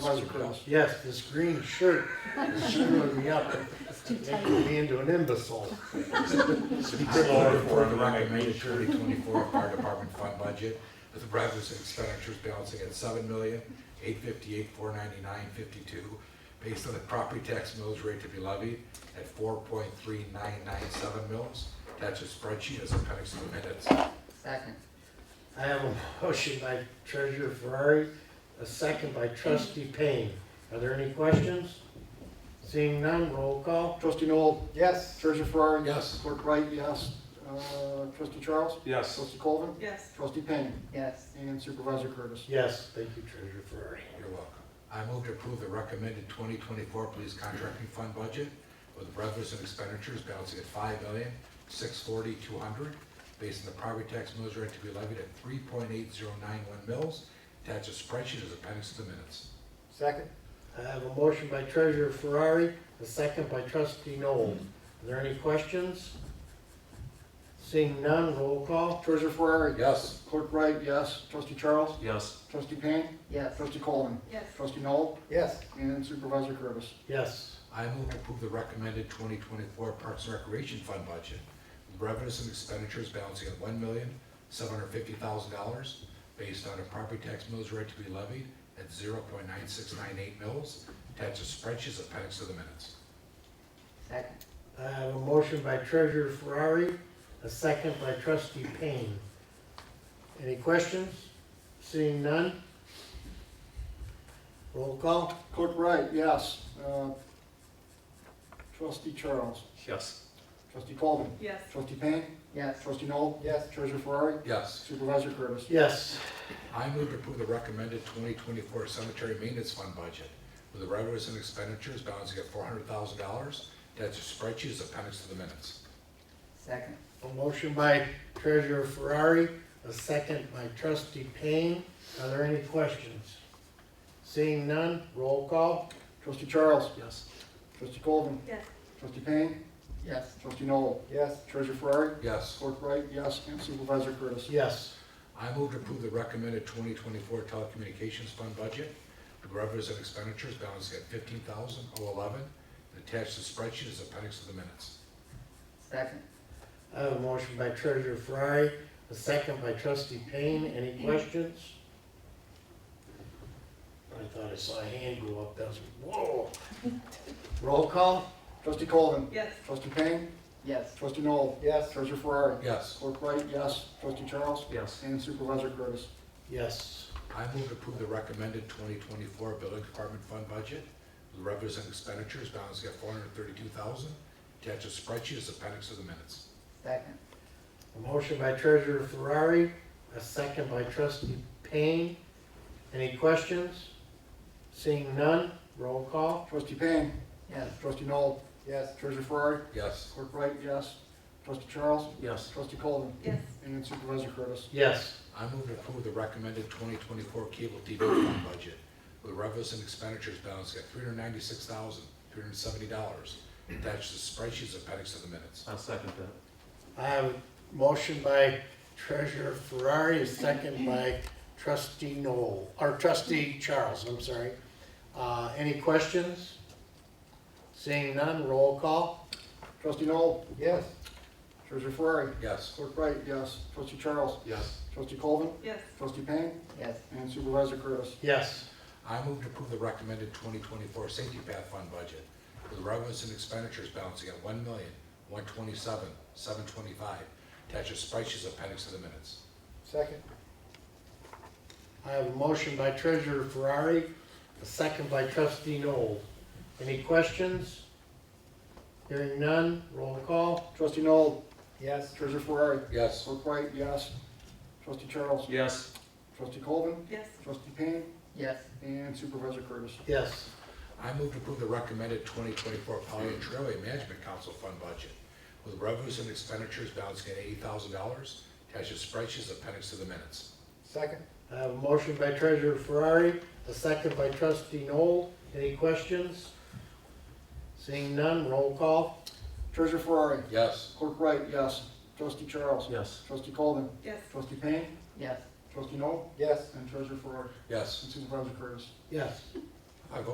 Yes, this green shirt is screwing me up, It's too tight. making me into an imbecile. Lord, for the record, made a thirty twenty-four fire department fund budget with the revenues and expenditures balancing at seven million, eight fifty-eight, four ninety-nine, fifty-two, based on the property tax mills rate to be levied at four point three nine nine seven mills. That's a spreadsheet as appendix to the minutes. Second. I have a motion by Treasurer Ferrari, a second by Trustee Payne. Are there any questions? Seeing none, roll call. Trustee Noel, Yes. Treasurer Ferrari. Yes. Clerk Wright, yes. Uh, Trustee Charles. Yes. Trustee Colvin. Yes. Trustee Payne. Yes. And Supervisor Curtis. Yes, thank you, Treasurer Ferrari. You're welcome. I move to approve the recommended 2024 police contracting fund budget with revenues and expenditures balancing at five million six forty two hundred, based on the property tax mills rate to be levied at 3.8091 mills. Attach a spreadsheet as appendix to the minutes. Second. I have a motion by Treasurer Ferrari, a second by Trustee Noel. Are there any questions? Seeing none, roll call. Treasurer Ferrari. Yes. Clerk Wright, yes. Trustee Charles. Yes. Trustee Payne. Yes. Trustee Colvin. Yes. Trustee Noel. Yes. And Supervisor Curtis. Yes, I move to approve the recommended 2024 Parks and Recreation Fund budget with revenues and expenditures balancing at $1,750,000 based on a property tax mills rate to be levied at 0.9698 mills. Attach a spreadsheet as appendix to the minutes. Second. I have a motion by Treasurer Ferrari, a second by Trustee Payne. Any questions? Seeing none? Roll call? Clerk Wright, yes. Uh, Trustee Charles. Yes. Trustee Colvin. Yes. Trustee Payne. Yes. Trustee Noel. Yes. Treasurer Ferrari. Yes. Supervisor Curtis. Yes. I move to approve the recommended 2024 cemetery maintenance fund budget with revenues and expenditures balancing at $400,000. Attach a spreadsheet as appendix to the minutes. Second. A motion by Treasurer Ferrari, a second by Trustee Payne. Are there any questions? Seeing none, roll call? Trustee Charles. Yes. Trustee Colvin. Yes. Trustee Payne. Yes. Trustee Noel. Yes. Treasurer Ferrari. Yes. Clerk Wright, yes. And Supervisor Curtis. Yes. I move to approve the recommended 2024 telecommunications fund budget, the revenues and expenditures balancing at 15,011, and attach the spreadsheet as appendix to the minutes. Second. I have a Uh, motion by Treasurer Ferrari, a second by Trustee Payne. Any questions? I thought I saw a hand go up. That was, whoa. Roll call? Trustee Colvin. Yes. Trustee Payne. Yes. Trustee Noel. Yes. Treasurer Ferrari. Yes. Clerk Wright, yes. Trustee Charles. Yes. And Supervisor Curtis. Yes. I move to approve the recommended 2024 building department fund budget, the revenues and expenditures balancing at 432,000, attach a spreadsheet as appendix to the minutes. Second. A motion by Treasurer Ferrari, a second by Trustee Payne. Any questions? Seeing none, roll call? Trustee Payne. Yes. Trustee Noel. Yes. Treasurer Ferrari. Yes. Clerk Wright, yes. Trustee Charles. Yes. Trustee Colvin. Yes. And Supervisor Curtis. Yes. I move to approve the recommended 2024 cable TV fund budget with revenues and expenditures balancing at $396,370. Attached to spreadsheets appendix to the minutes. I second that. I have a motion by Treasurer Ferrari, a second by Trustee Noel, or Trustee Charles, I'm sorry. Uh, Any questions? Seeing none, roll call? Trustee Noel. Yes. Treasurer Ferrari. Yes. Clerk Wright, yes. Trustee Charles. Yes. Trustee Colvin. Yes. Trustee Payne. Yes. And Supervisor Curtis. Yes. I move to approve the recommended 2024 safety path fund budget with revenues and expenditures balancing at $1,127,725. Attached to spreadsheets appendix to the minutes. Second. I have a motion by Treasurer Ferrari, a second by Trustee Noel. Any questions? Hearing none, roll call? Trustee Noel. Yes. Treasurer Ferrari. Yes. Clerk Wright, yes. Trustee Charles. Yes. Trustee Colvin. Yes. Trustee Payne. Yes. And Supervisor Curtis. Yes. I move to approve the recommended 2024 Polly and Trailway Management Council Fund budget with revenues and expenditures balancing at $80,000. Attached to spreadsheets appendix to the minutes. Second. I have a motion by Treasurer Ferrari, a second by Trustee Noel. Any questions? Seeing none, roll call. Treasurer Ferrari. Yes. Clerk Wright, yes. Trustee Charles. Yes. Trustee Colvin. Yes. Trustee Payne. Yes. Trustee Noel. Yes. And Treasurer Ferrari. Yes. And Supervisor Curtis. Yes.